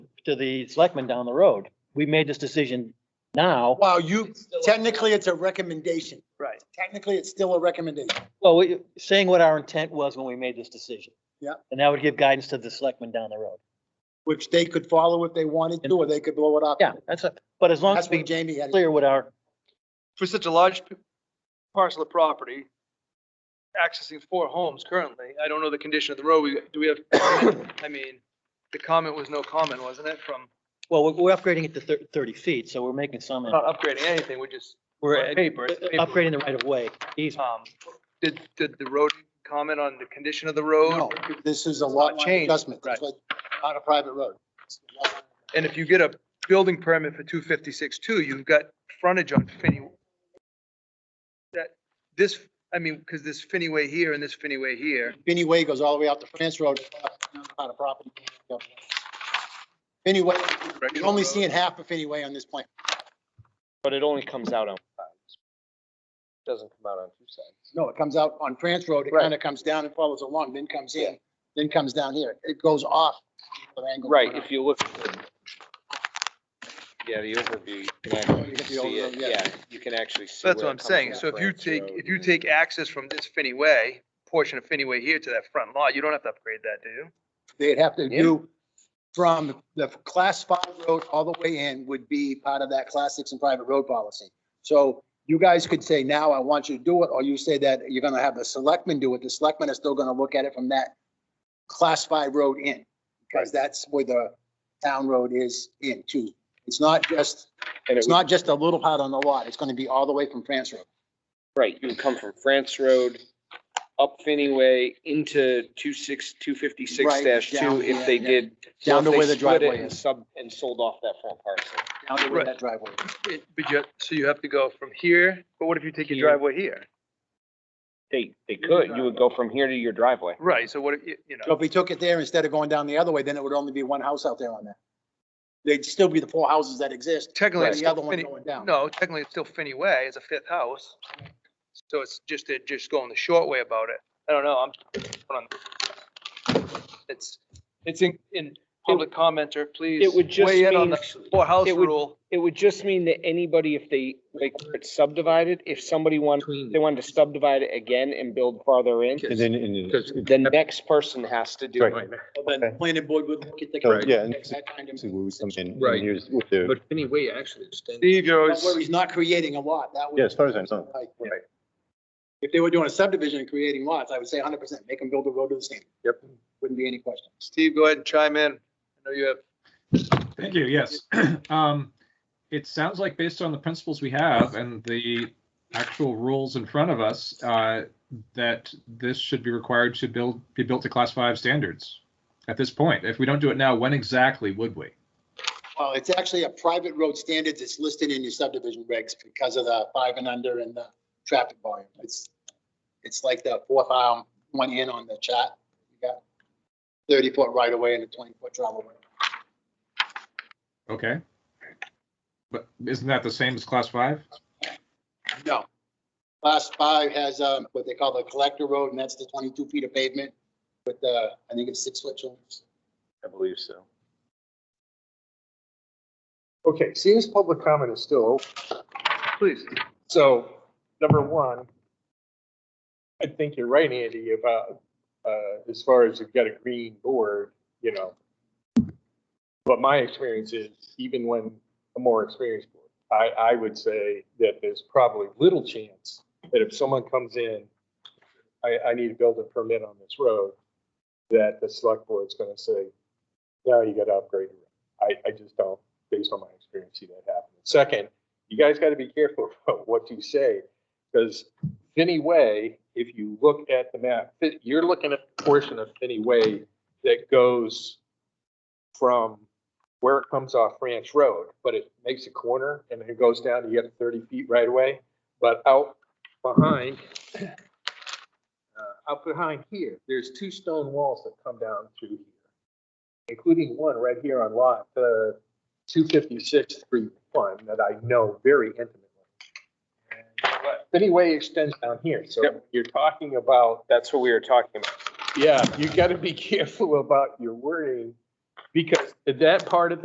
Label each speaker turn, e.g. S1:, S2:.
S1: to the selectmen down the road. We made this decision now.
S2: Wow, you,
S3: It's still a-
S2: technically, it's a recommendation.
S3: Right.
S2: Technically, it's still a recommendation.
S1: Well, we, saying what our intent was when we made this decision.
S2: Yeah.
S1: And that would give guidance to the selectmen down the road.
S2: Which they could follow if they wanted to, or they could blow it up.
S1: Yeah, that's, a- but as long
S2: That's
S1: as we
S2: what Jamie had.
S1: clear what our,
S3: For such a large p- parcel of property, accessing four homes currently, I don't know the condition of the road. We, do we have, I mean, the comment was no comment, wasn't it, from
S1: well, we're- we're upgrading it to thir- thirty feet, so we're making some,
S3: we're not upgrading anything, we're just
S1: we're
S3: on
S1: uh,
S3: paper. it's paper.
S1: upgrading the right of way. easement.
S3: Um, Did, did the road comment on the condition of the road?
S2: No, this is a lot
S3: change,
S2: change adjustment. It's like on a private road.
S3: And if you get a building permit for two fifty-six two, you've got frontage on Finney. That, this, I mean, because this Finney Way here and this Finney Way here,
S2: Finney Way goes all the way out to France Road on a property. Finney Way, you're only seeing half of Finney Way on this plan.
S4: But it only comes out on five. Doesn't come out on two sides.
S2: No, it comes out on France Road. It
S4: Right.
S2: kind of comes down and follows along, then comes in, then comes down here. It goes off. the angle.
S4: Right, if you look. at the- Yeah, the overview, you can
S2: You
S4: actually
S2: get the
S4: see it,
S2: overview, yeah.
S4: yeah, you can actually see.
S3: that's
S4: where
S3: what
S4: it
S3: I'm
S4: comes
S3: saying.
S4: off
S3: So if you
S4: Grants
S3: take,
S4: Road
S3: if you
S4: and-
S3: take access from this Finney Way, portion of Finney Way here to that front lot, you don't have to upgrade that, do you?
S2: They'd have to
S4: Yeah.
S2: do from the class five road all the way in would be part of that class six and private road policy. So you guys could say now, I want you to do it, or you say that you're gonna have the selectmen do it. The selectmen are still gonna look at it from that class five road in, because that's where the town road is in too. It's not just,
S4: And it
S2: it's not just a little part on the lot. It's gonna be all the way from France Road.
S4: would, right, you would come from France Road, up Finney Way, into two six, two fifty-six
S2: Right,
S4: dash two,
S2: down,
S4: if
S2: yeah,
S4: they
S2: yeah.
S4: did. so
S2: Down
S4: if
S2: to
S4: they
S2: where the
S4: split it
S2: driveway
S4: and
S2: is.
S4: Sub, and sold off that front parcel.
S2: Down to where
S3: Right.
S2: that driveway. is.
S3: It- But you, so you have to go from here, but what if you take your
S4: Here.
S3: driveway here?
S4: They, they could, you would go from here to your driveway.
S3: Right, so what, if you you
S2: So
S3: know,
S2: if we took it there instead of going down the other way, then it would only be one house out there on that. They'd still be the four houses that exist.
S3: technically,
S2: Right,
S3: it's
S2: the other
S3: still
S2: one
S3: Finney,
S2: going down.
S3: no, technically, it's still Finney Way, it's a fifth house. So it's just, they're just going the short way about it. I don't know, I'm, hold on. it's, it's in, in public commenter, please.
S4: It would just
S3: Weigh in on
S4: mean-
S3: the four house
S4: it would-
S3: rule.
S4: It would just mean that anybody, if they, like, where it's subdivided, if somebody wanted, they wanted to subdivide it again and build farther in,
S5: And then, and then-
S4: the next person has to do it.
S5: Right.
S2: Then the planning board would look at the.
S5: Right, yeah, and-
S2: That kind of-
S5: see where we come in. and
S6: Right.
S5: Here's what the,
S6: But anyway, actually extend.
S3: Steve, you're
S2: But
S3: always,
S2: Where he's not creating a lot, that would.
S5: yeah, as far as I know,
S2: Like, If they were doing a subdivision and creating lots, I would say hundred percent, make them build a road to the same.
S6: Yep.
S2: Wouldn't be any question.
S3: Steve, go ahead and chime in. I know you have
S7: Thank you, yes. Um, It sounds like based on the principles we have and the actual rules in front of us, uh, that this should be required to build, be built to class five standards at this point. If we don't do it now, when exactly would we?
S2: Well, it's actually a private road standards. It's listed in your subdivision regs because of the five and under and the traffic volume. It's, it's like the fourth um, one in on the chat. You got thirty foot right away and a twenty foot travel way.
S7: Okay? But isn't that the same as class five?
S2: No. Class five has, um, what they call the collector road, and that's the twenty-two feet of pavement with the, I think it's six foot shoulders.
S4: I believe so.
S8: Okay, see, this public comment is still open.
S3: Please.
S8: So, number one, I think you're right, Andy, about, uh, as far as you've got a green board, you know. But my experience is even when a more experienced board, I, I would say that there's probably little chance that if someone comes in, I, I need to build a permit on this road, that the select board's gonna say, no, you gotta upgrade it. I, I just don't, based on my experience, see that happen. Second, you guys got to be careful about what you say, because Finney Way, if you look at the map, fi- you're looking at a portion of Finney Way that goes from where it comes off Ranch Road, but it makes a corner and then it goes down, you get thirty feet right away. But out behind, uh, out behind here, there's two stone walls that come down through here, including one right here on lot, uh, two fifty-six, three, one, that I know very intimately. Anyway, extends down here, so you're talking about,
S4: That's what we were talking about.
S8: yeah, you gotta be careful about your wording, because that part of